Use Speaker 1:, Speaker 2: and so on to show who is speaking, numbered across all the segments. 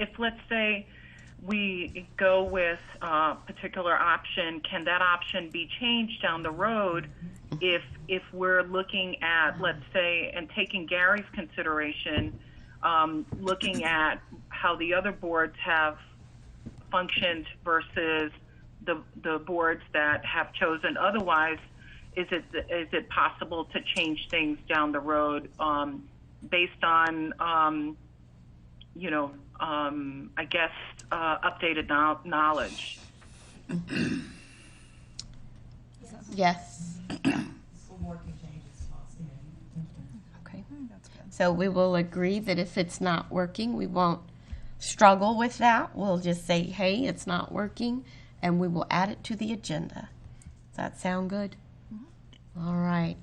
Speaker 1: if let's say we go with a particular option, can that option be changed down the road if if we're looking at let's say and taking Gary's consideration, um, looking at how the other boards have functioned versus the the boards that have chosen otherwise. Is it is it possible to change things down the road um, based on um, you know, um, I guess, uh, updated no- knowledge.
Speaker 2: Yes. Okay.
Speaker 3: That's good.
Speaker 2: So we will agree that if it's not working, we won't struggle with that. We'll just say, hey, it's not working, and we will add it to the agenda. Does that sound good? All right.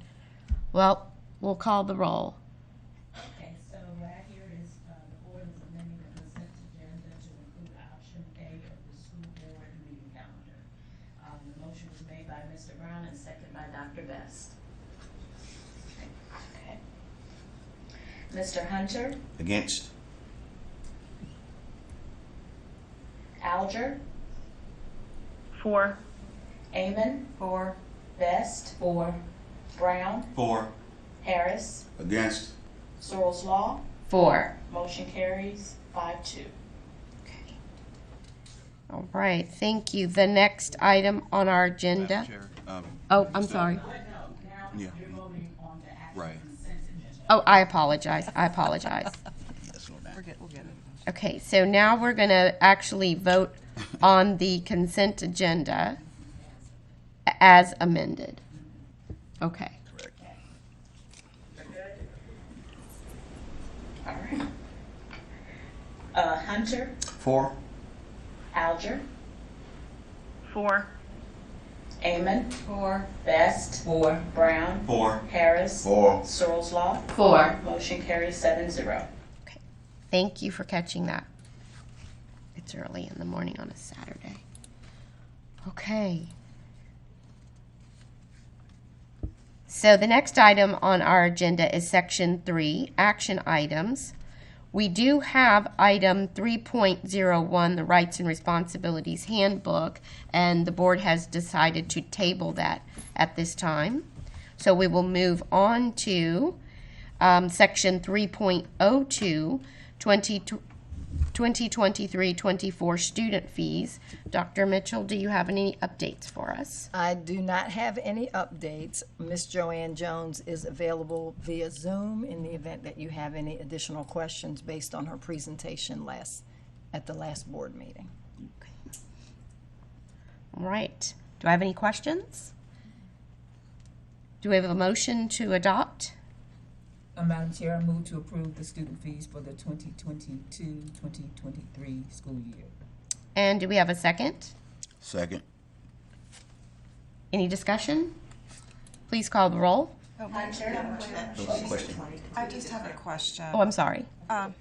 Speaker 2: Well, we'll call the roll.
Speaker 4: Okay, so right here is, uh, the ordinance amending the consent agenda to include option A of the school board meeting calendar. Um, the motion was made by Mr. Brown and seconded by Dr. Best. Okay. Mr. Hunter,
Speaker 5: Against.
Speaker 4: Alger,
Speaker 1: Four,
Speaker 4: Amon. Four. Best. Four. Brown,
Speaker 5: Four.
Speaker 4: Harris,
Speaker 5: Against.
Speaker 4: Searles Law,
Speaker 2: Four.
Speaker 4: motion carries five two.
Speaker 2: All right. Thank you. The next item on our agenda.
Speaker 5: Chair. Um,
Speaker 2: Oh, I'm sorry.
Speaker 4: No, now
Speaker 5: Yeah.
Speaker 4: you're voting on the actual
Speaker 5: Right.
Speaker 4: consent agenda.
Speaker 2: Oh, I apologize. I apologize.
Speaker 3: We're good, we'll get it.
Speaker 2: Okay, so now we're going to actually vote on the consent agenda as amended. Okay.
Speaker 4: All right. Uh, Hunter,
Speaker 5: Four.
Speaker 4: Alger,
Speaker 1: four,
Speaker 4: Amon. Four. Best. Four. Brown.
Speaker 5: Four.
Speaker 4: Harris.
Speaker 5: Four.
Speaker 4: Searles Law.
Speaker 2: Four.
Speaker 4: Motion carries seven zero.
Speaker 2: Thank you for catching that. It's early in the morning on a Saturday. Okay. So the next item on our agenda is section three, action items. We do have item three point zero one, the Rights and Responsibilities Handbook, and the board has decided to table that at this time. So we will move on to um, Section 3.02, 20 2023-24 student fees. Dr. Mitchell, do you have any updates for us?
Speaker 3: I do not have any updates. Miss Joanne Jones is available via Zoom in the event that you have any additional questions based on her presentation last, at the last board meeting.
Speaker 2: All right. Do I have any questions? Do we have a motion to adopt?
Speaker 6: Uh, Madam Chair, I move to approve the student fees for the 2022-2023 school year.
Speaker 2: And do we have a second?
Speaker 5: Second.
Speaker 2: Any discussion? Please call the roll.
Speaker 4: Hunter,
Speaker 7: I just have a question.
Speaker 2: Oh, I'm sorry.
Speaker 7: Well,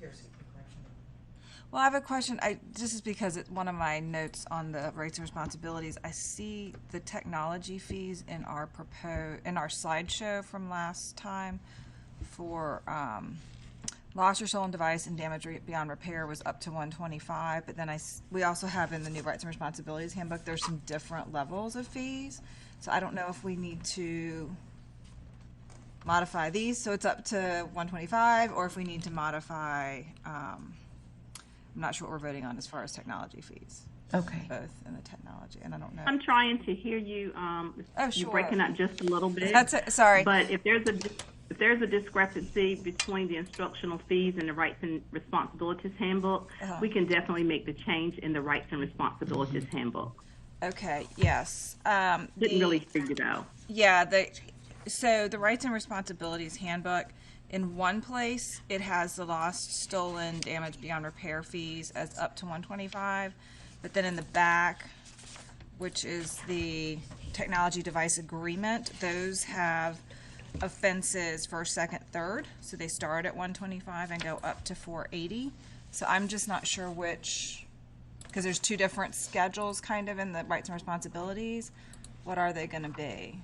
Speaker 7: I have a question. I this is because it, one of my notes on the rights and responsibilities. I see the technology fees in our propose in our slideshow from last time for um, lost or stolen device and damage re- beyond repair was up to 125. But then I s- we also have in the new rights and responsibilities handbook there's some different levels of fees. So I don't know if we need to modify these so it's up to 125 or if we need to modify um, I'm not sure what we're voting on as far as technology fees,
Speaker 2: Okay.
Speaker 7: both in the technology, and I don't know.
Speaker 8: I'm trying to hear you. Um,
Speaker 7: Oh,
Speaker 8: You're
Speaker 7: sure.
Speaker 8: breaking up just a little bit.
Speaker 7: That's it, sorry.
Speaker 8: But if there's a if there's a discrepancy between the instructional fees and the rights and responsibilities handbook,
Speaker 7: Uh-huh.
Speaker 8: we can definitely make the change in the rights and responsibilities
Speaker 7: Mm-hmm.
Speaker 8: handbook.
Speaker 7: Okay, yes. Um,
Speaker 8: Didn't
Speaker 7: the-
Speaker 8: really figure it out.
Speaker 7: Yeah, the, so the rights and responsibilities handbook, in one place, it has the lost, stolen, damaged beyond repair fees as up to 125, but then in the back, which is the technology device agreement, those have offenses first, second, third, so they start at 125 and go up to 480. So I'm just not sure which, because there's two different schedules kind of in the rights and responsibilities. What are they going to be?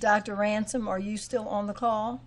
Speaker 3: Dr. Ransom, are you still on the call?